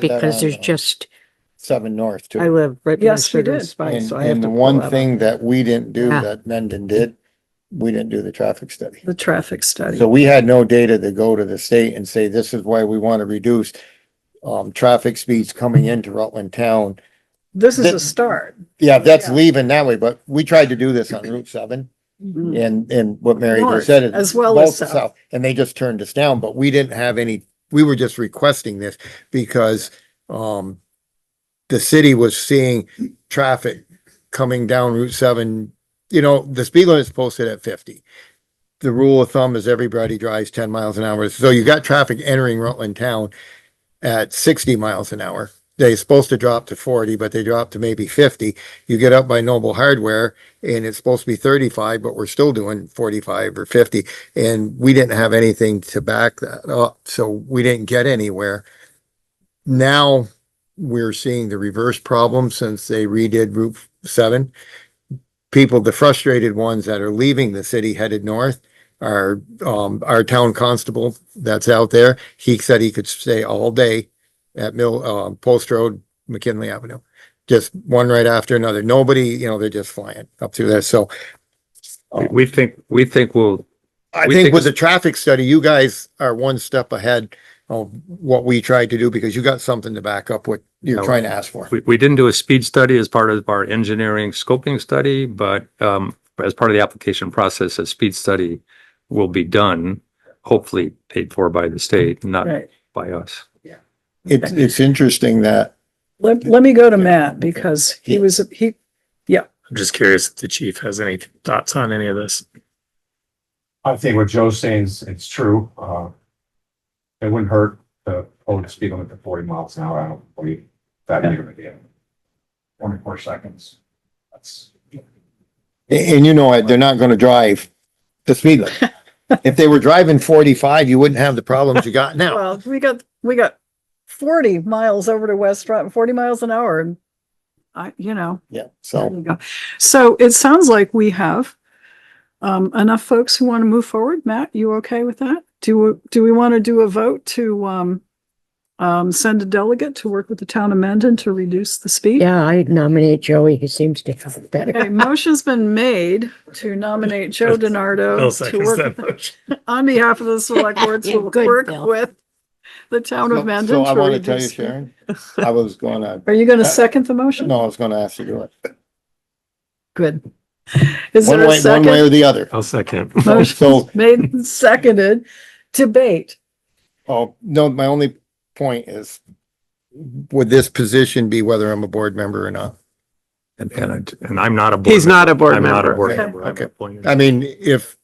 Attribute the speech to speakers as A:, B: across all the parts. A: because there's
B: on, uh,
A: just,
B: Seven North
C: I
B: too.
C: live right
D: Yes,
C: next
D: we
C: to the
D: did.
C: spike,
B: And,
C: so I have
B: and the
C: to. pull that
B: one
C: up.
B: thing that we didn't do
A: Yeah.
B: that Mendon did, we didn't do the traffic study.
D: the traffic study.
B: So we had no data to go to the state and say, this is why we want to reduce um, traffic speeds coming into Rutland town.
D: This is
B: the-
D: a start.
B: Yeah, that's
D: Yeah.
B: leaving that way, but we tried to do this on Route seven
D: Mhm.
B: and, and what Mary
D: North,
B: just said. is
D: as well as
B: both the
D: south.
B: And they just turned us down, but we didn't have any, we were just requesting this because, um, the city was seeing traffic coming down Route seven. You know, the speed limit is posted at fifty. The rule of thumb is everybody drives ten miles an hour. So you got traffic entering Rutland town at sixty miles an hour. They're supposed to drop to forty, but they drop to maybe fifty. You get up by Noble Hardware and it's supposed to be thirty-five, but we're still doing forty-five or fifty. And we didn't have anything to back that up, so we didn't get anywhere. Now, we're seeing the reverse problem since they redid Route seven. People, the frustrated ones that are leaving the city headed north are, um, our town constable that's out there. He said he could stay all day at Mill, uh, Post Road, McKinley Avenue. Just one right after another. Nobody, you know, they're just flying up through there. So
E: We think, we think we'll,
B: I
E: We
B: think
E: think
B: with the traffic study, you guys are one step ahead of what we tried to do because you got something to back up what
E: No.
B: you're trying to ask for.
E: we, we didn't do a speed study as part of our engineering scoping study, but, um, as part of the application process, a speed study will be done, hopefully paid for by the state, not
D: Right.
E: by us.
B: It's, it's interesting that
D: Let, let me go to Matt because he
B: Yeah.
D: was, he,
F: I'm just curious if the chief has any thoughts on any of this.
G: I think what Joe's saying is, it's true, uh. It wouldn't hurt to hold the speed limit to forty miles an hour, I don't believe that big of a deal. Twenty-four seconds, that's.
B: A- And you know, it, they're not gonna drive the speed limit. If they were driving forty-five, you wouldn't have the problems you got now.
D: well, we got, we got forty miles over to West Rock, forty miles an hour and I, you know,
B: Yeah,
D: there
B: so
D: you go. So it sounds like we have um, enough folks who want to move forward. Matt, you okay with that? Do, we- do we want to do a vote to um, um, send a delegate to work with the town of Mendon to reduce the speed?
A: yeah, I nominate Joey. He seems to have it
D: Okay,
A: better.
D: motion's been made to nominate Joe
F: Bill
D: DiNardo Oh, to
F: seconds
D: work
F: that motion.
D: on behalf of the select boards
A: Yeah,
D: will
A: good,
D: work
A: Bill.
D: with the town
B: So
D: of
B: so
D: Mendon.
B: I
D: to
B: wanna tell you,
D: reduce-
B: Sharon, I was gonna,
D: Are you going to second the motion?
B: no, I was gonna ask you to do it.
D: Good. Is
B: One
D: there a
B: way, one way or
D: second?
B: the other.
E: I'll second.
B: So,
D: Motion made and seconded. Debate.
B: oh, no, my only point is, would this position be whether I'm a board member or not?
E: And, and, and I'm not a board.
C: He's not a board
E: I'm not a
C: member.
E: board
B: Okay,
E: member. I'm
B: okay.
E: appointed.
B: I mean, if,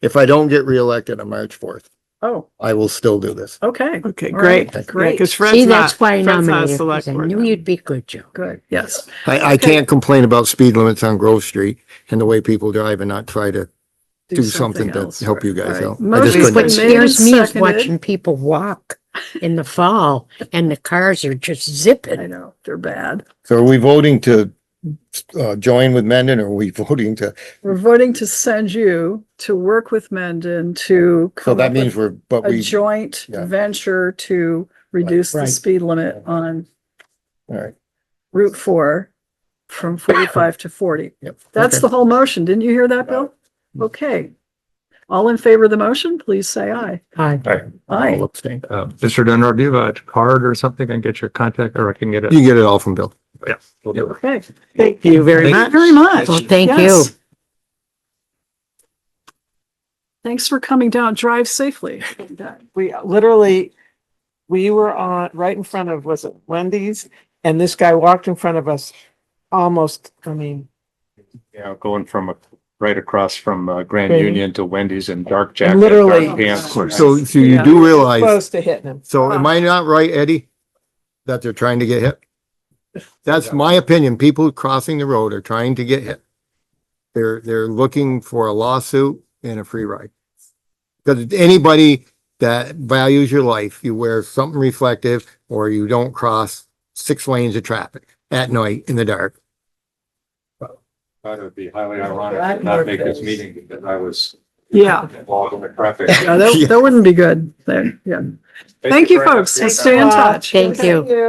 B: if I don't get reelected on March fourth,
D: Oh,
B: I will still do this.
D: okay,
C: Okay,
D: All right,
C: great. Yeah,
D: great.
C: Cause
A: See,
C: Fred's not,
A: that's why I
C: Fred's not a
A: nominated,
C: select
A: because I
C: board.
A: knew
C: member.
A: you'd be good, Joe.
D: good, yes.
B: I, I can't complain about speed limits on Grove Street and the way people drive and not try to do something to
D: else.
B: help you guys
D: Right.
B: out. I just
D: Motion's
B: couldn't.
D: been
A: What
D: made and
A: scares me is
D: seconded.
A: watching people walk in the fall and the cars are just
D: I
A: zipping.
D: know, they're bad.
B: So are we voting to uh, join with Mendon or are we voting to,
D: We're voting to send you to work with Mendon to.
B: so
D: come
B: that
D: up with
B: means we're, but
D: a
B: we,
D: joint
B: yeah.
D: venture to reduce the
A: Right.
D: speed limit on
B: all right.
D: Route Four from forty-five to forty.
B: Yep.
D: That's the whole motion. Didn't you hear
B: Got
D: that, Bill? Okay. All in favor of the motion, please say aye.
A: Hi.
D: Aye.
B: You
E: Uh, Mr. Dunbar, do you have a card or something? I can get your contact or I can get it.
B: can get it all from Bill.
E: We'll do it.
D: Okay.
C: Thank you very
E: Thank-
C: much.
D: Very much.
A: Well, thank you.
D: Yes. Thanks for coming down. Drive safely.
C: We literally, we were on, right in front of, was it Wendy's? And this guy walked in front of us, almost, I mean,
E: Yeah, going from, a- right across from uh, Grand
C: Grand
E: Union to Wendy's and Dark Jacket.
C: Literally.
E: Dark Pants.
D: Of course.
B: So, so you
D: Oh, Yeah.
B: do realize,
C: close to hitting him.
B: so am I not right, Eddie? That they're trying to get hit? That's my opinion. People crossing the road are trying to get hit. They're, they're looking for a lawsuit and a free ride. Because anybody that values your life, you wear something reflective or you don't cross six lanes of traffic at night in the dark.
G: Thought it would be highly ironic to not make this meeting because I was
D: Yeah,
G: Log on the traffic.
D: yeah, that, that wouldn't be good. There, yeah. Thank you,
G: very much
D: folks.
G: for your
D: Stay in
G: time.
D: touch.
A: Thank you.